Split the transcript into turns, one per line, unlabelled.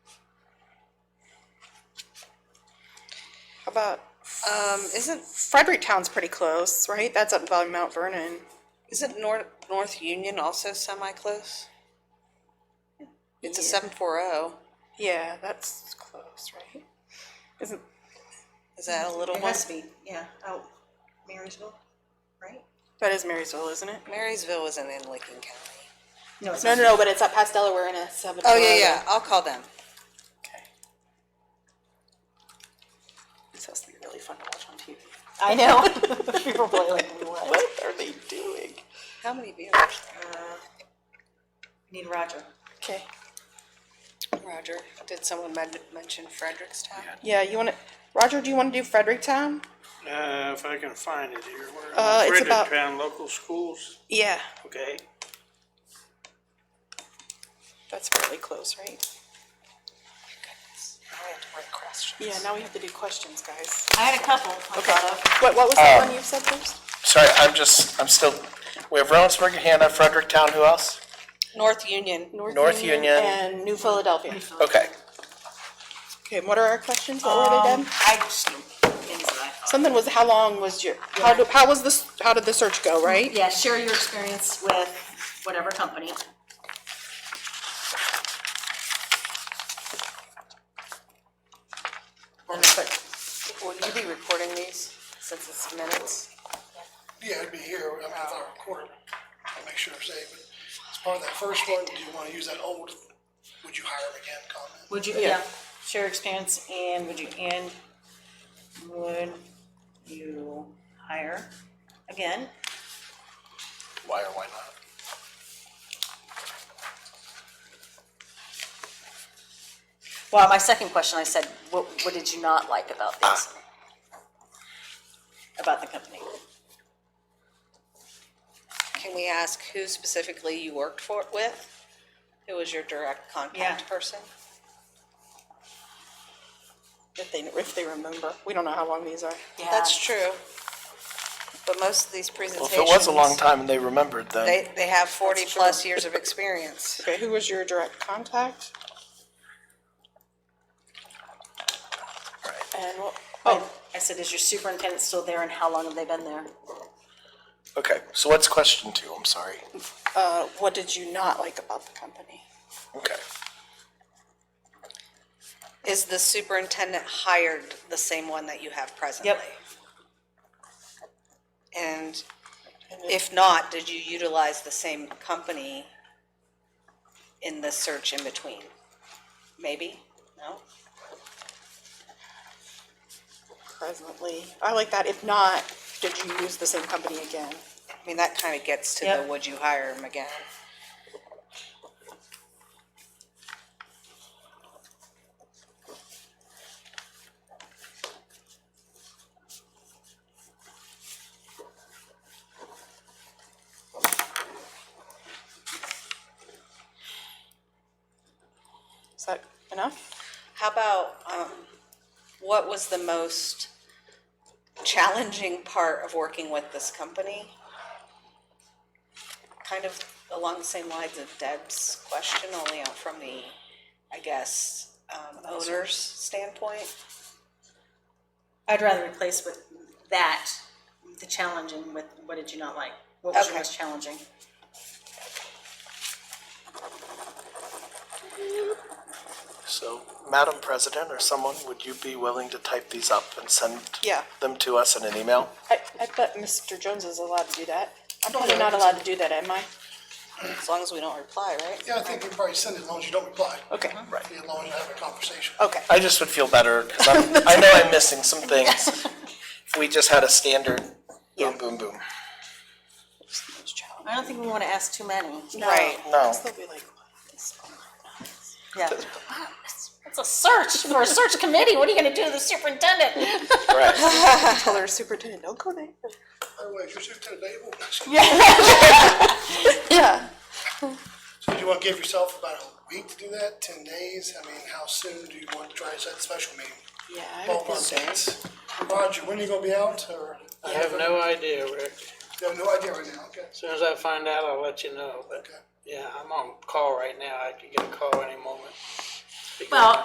about, um, isn't Fredericktown's pretty close, right? That's up by Mount Vernon.
Isn't North, North Union also semi-close? It's a seven four oh.
Yeah, that's close, right? Isn't,
Is that a little
It
one?
has to be, yeah, out Marysville, right?
that is Marysville, isn't it?
Marysville isn't in Lincoln County.
it's
No,
not.
no, no, but it's up past Delaware and it's up.
Oh, yeah, yeah, I'll call them.
Okay. This has to be really fun to watch on TV. I know. People play like, what are they doing?
How many viewers?
Uh, Need Roger.
Okay,
Roger, did someone men- mention Frederickstown?
yeah, you wanna, Roger, do you wanna do Fredericktown?
Uh, if I can find it here, where,
Uh,
am I?
it's about-
Fredericktown Local Schools,
Yeah.
okay,
That's fairly close, right?
I have to write questions.
Yeah, now we have to do questions, guys.
I had a couple.
Okay, what, what was
Um,
that one you said first?
Sorry, I'm just, I'm still, we have Reynoldsburg, Hannah, Fredericktown, who else?
North Union.
North Union.
And New Philadelphia.
Okay.
Okay, and what are our questions? What were they, Deb?
I just, things that I thought.
Something was, how long was your, how, do- how was this, how did the search go, right?
Yeah, share your experience with whatever company.
And it's like, Will you be recording these since it's minutes?
Yeah, it'd be here, I mean, if I record it, I'll make sure it's saved, but as part of that first one, do you wanna use that old, would you hire him again comment?
Would you, yeah, share experience and would you, and would you hire again?
Why or why not?
Well, my second question, I said, what, what did you not like about these? About the company.
Can we ask who specifically you worked for, with? Who was your direct
Yeah.
contact person?
If they, if they remember. We don't know how long these are.
That's true. But most of these
Well,
presentations.
if it was a long time and they remembered, then
They, they have forty plus years of experience.
Okay, who was your direct contact? And what,
Oh, I said, is your superintendent still there and how long have they been there?
okay, so what's question two? I'm sorry.
uh, what did you not like about the company?
Okay.
Is the superintendent hired the same one that you have presently? And if not, did you utilize the same company in the search in between? Maybe? No?
Presently, I like that. If not, did you use the same company again?
I mean, that kind of gets to the
Yep.
would you hire him again?
Is that enough?
How about, um, what was the most challenging part of working with this company? Kind of along the same lines of Deb's question, only out from the, I guess, um, owner's standpoint.
I'd rather replace with that, the challenging with, what did you not like? What was your
Okay.
most challenging?
So, Madam President or someone, would you be willing to type these up and send
Yeah.
them to us in an email?
I, I bet Mr. Jones is allowed to do that. I'm probably not allowed to do that, am I?
As long as we don't reply, right?
Yeah, I think you probably send it as long as you don't reply.
Okay,
Right.
As long as you have a conversation.
Uh,
okay.
I just would feel better because I'm, I know I'm missing some things. If we just had a standard boom, boom, boom.
I don't think we wanna ask too many.
Right.
No.
They'll be like, what is going on?
Yeah. It's a search, for a search committee, what are you gonna do to the superintendent?
Right.
Tell our superintendent, don't go there.
By the way, if you're sitting at the table,
Yeah.
so do you wanna give yourself about a week to do that, ten days? I mean, how soon do you want to try to set the special meeting?
Yeah, I would
Ballpark
think so.
dates. Roger, when are you gonna be out, or?
I have no idea, Rick,
You have no idea right now, okay?
as soon as I find out, I'll let you know, but,
Okay.
yeah, I'm on call right now, I could get a call any moment.
Well,